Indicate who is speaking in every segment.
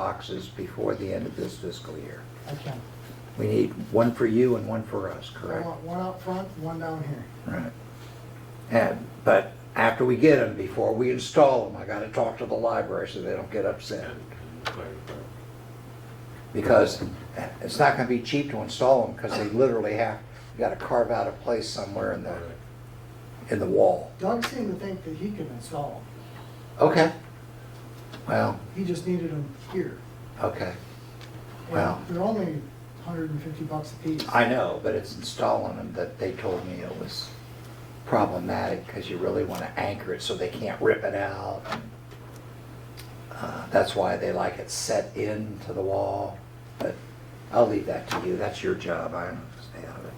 Speaker 1: boxes before the end of this fiscal year.
Speaker 2: Okay.
Speaker 1: We need one for you and one for us,
Speaker 2: I
Speaker 1: correct?
Speaker 2: want one out front, and one down here.
Speaker 1: Right. And, but after we get them, before we install them, I gotta talk to the library so they don't get upset. Because it's not gonna be cheap to install them, because they literally have, you gotta carve out a place somewhere in the, in the wall.
Speaker 2: Doug seemed to think that he could install
Speaker 1: Okay. Well,
Speaker 2: them. He just needed them here.
Speaker 1: okay.
Speaker 2: And
Speaker 1: Well.
Speaker 2: They're only hundred and fifty bucks a piece.
Speaker 1: I know, but it's installing them that they told me it was problematic because you really want to anchor it so they can't rip it out. Uh, That's why they like it set into the wall, but I'll leave that to you. That's your job. I don't stay out of it.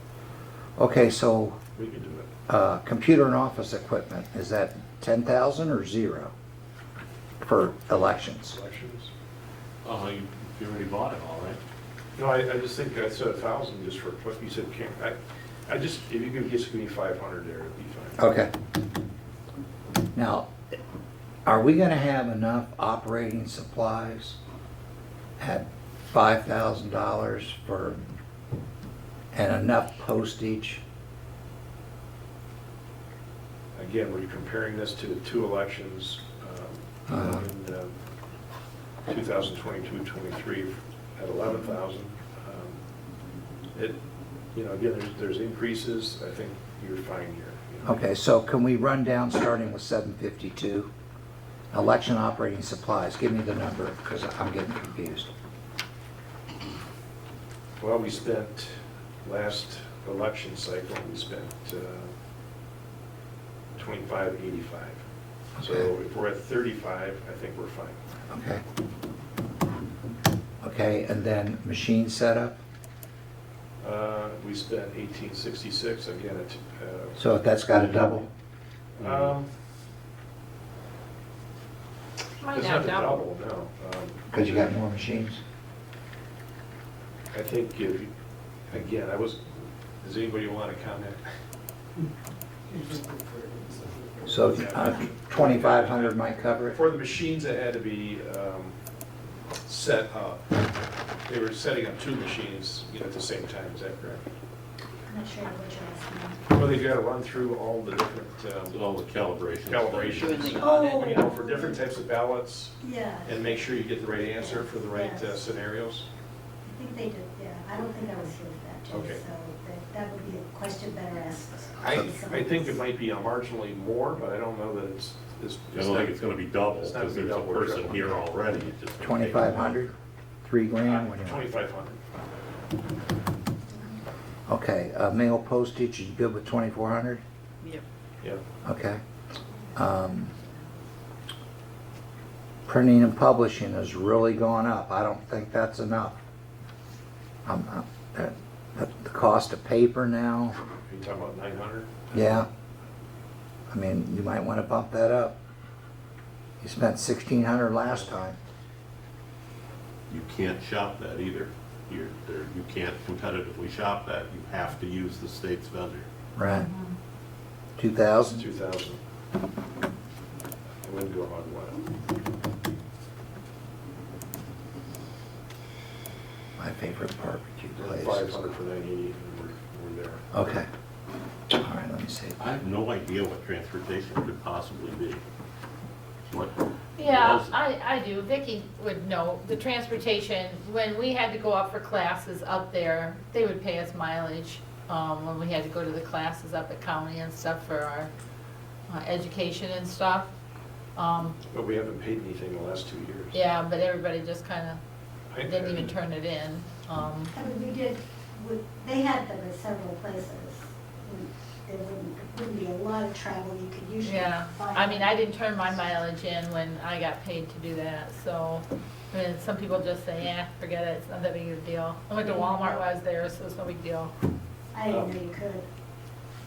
Speaker 1: Okay, so
Speaker 3: We can do it.
Speaker 1: uh, computer and office equipment, is that 10,000 or zero for elections?
Speaker 3: Selections? Oh, you, you already bought it all, right? No, I, I just think I said a thousand just for, what you said, can't, I, I just, if you could just give me five hundred there, it'd be fine.
Speaker 1: Okay. Now, are we gonna have enough operating supplies at five thousand dollars for, and enough postage?
Speaker 3: Again, we're comparing this to the two elections, um, in, uh, 2022, 23 at 11,000. Um, It, you know, again, there's, there's increases, I think you're fine here. you know.
Speaker 1: Okay, so can we run down, starting with seven fifty-two? Election operating supplies, give me the number, because I'm getting confused.
Speaker 3: Well, we spent, last election cycle, we spent uh, 2585. So
Speaker 1: Okay.
Speaker 3: if we're at 35, I think we're fine.
Speaker 1: Okay. Okay, and then machine setup?
Speaker 3: Uh, We spent 1866, again, it. uh,
Speaker 1: So if that's got a double?
Speaker 3: um,
Speaker 4: Might
Speaker 3: It's
Speaker 4: not
Speaker 3: not the
Speaker 4: double.
Speaker 3: double, no. Um,
Speaker 1: Because you got more machines?
Speaker 3: I think if, you- again, I was, does anybody want to comment?
Speaker 1: So uh, twenty-five hundred might cover it?
Speaker 3: For the machines that had to be um, set up, they were setting up two machines, you know, at the same time, is that correct?
Speaker 5: I'm not sure what you're asking.
Speaker 3: Well, they've got to run through all the different um,
Speaker 6: All the calibrations.
Speaker 3: calibrations, you know, for different types of ballots,
Speaker 5: Oh. Yeah, I
Speaker 3: and make sure you get the right answer for the right uh, scenarios.
Speaker 5: think they did, yeah. I don't think I was here for that, too,
Speaker 3: Okay.
Speaker 5: so that- that would be a question better asked.
Speaker 3: I,
Speaker 5: to someone
Speaker 3: I think it
Speaker 5: else.
Speaker 3: might be uh, marginally more, but I don't know that it's, it's.
Speaker 6: I don't think it's gonna be double,
Speaker 3: It's not gonna
Speaker 6: because
Speaker 3: be
Speaker 6: there's a
Speaker 3: double or
Speaker 6: person
Speaker 3: triple.
Speaker 6: here already. It's just-
Speaker 1: Twenty-five hundred? Three grand? what do you want?
Speaker 3: Twenty-five hundred.
Speaker 1: Okay, uh, mail postage, you good with twenty-four hundred?
Speaker 4: Yep.
Speaker 3: Yeah,
Speaker 1: Okay. Um, Printing and publishing has really gone up. I don't think that's enough. Um, uh, that- that- The cost of paper now,
Speaker 3: are you talking about nine hundred?
Speaker 1: yeah. I mean, you might want to bump that up. You spent sixteen hundred last time.
Speaker 6: You can't shop that either. You're, there, you can't competitively shop that. You have to use the state's vendor.
Speaker 1: Right. Two thousand?
Speaker 3: Two thousand. I wouldn't go on one.
Speaker 1: My favorite barbecue
Speaker 3: Five
Speaker 1: place.
Speaker 3: hundred for nine eighty, and we're, we're there.
Speaker 1: Okay. All right, let me see.
Speaker 6: I have no idea what transportation could possibly be. What?
Speaker 4: Yeah,
Speaker 6: what else?
Speaker 4: I, I do. Vicki would know. The transportation, when we had to go up for classes up there, they would pay us mileage, um, when we had to go to the classes up at county and stuff for our, uh, education and stuff. Um,
Speaker 3: But we haven't paid anything the last two years.
Speaker 4: yeah, but everybody just kinda
Speaker 3: I-
Speaker 4: didn't even turn it in, um.
Speaker 5: I mean, we did, we- they had them at several places. There wouldn't, wouldn't be a lot of travel you could usually find.
Speaker 4: Yeah, I mean, I didn't turn my mileage in when I got paid to do that, so, I mean, some people just say, eh, forget it, it's not that big of a deal. I went to Walmart while I was there, so it's no big deal.
Speaker 5: I didn't know you could.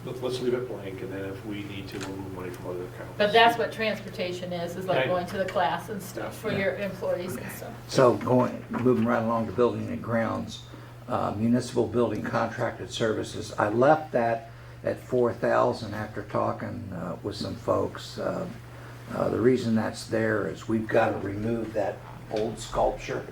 Speaker 3: Let- Let's leave it blank, and then if we need to, we'll move money from other accounts.
Speaker 4: But that's what transportation is, is like
Speaker 3: Okay.
Speaker 4: going to the class and stuff for your employees and stuff.
Speaker 1: So going, moving right along to building and grounds, uh, municipal building contracted services. I left that at four thousand after talking uh, with some folks. Uh, uh, The reason that's there is we've got to remove that old sculpture.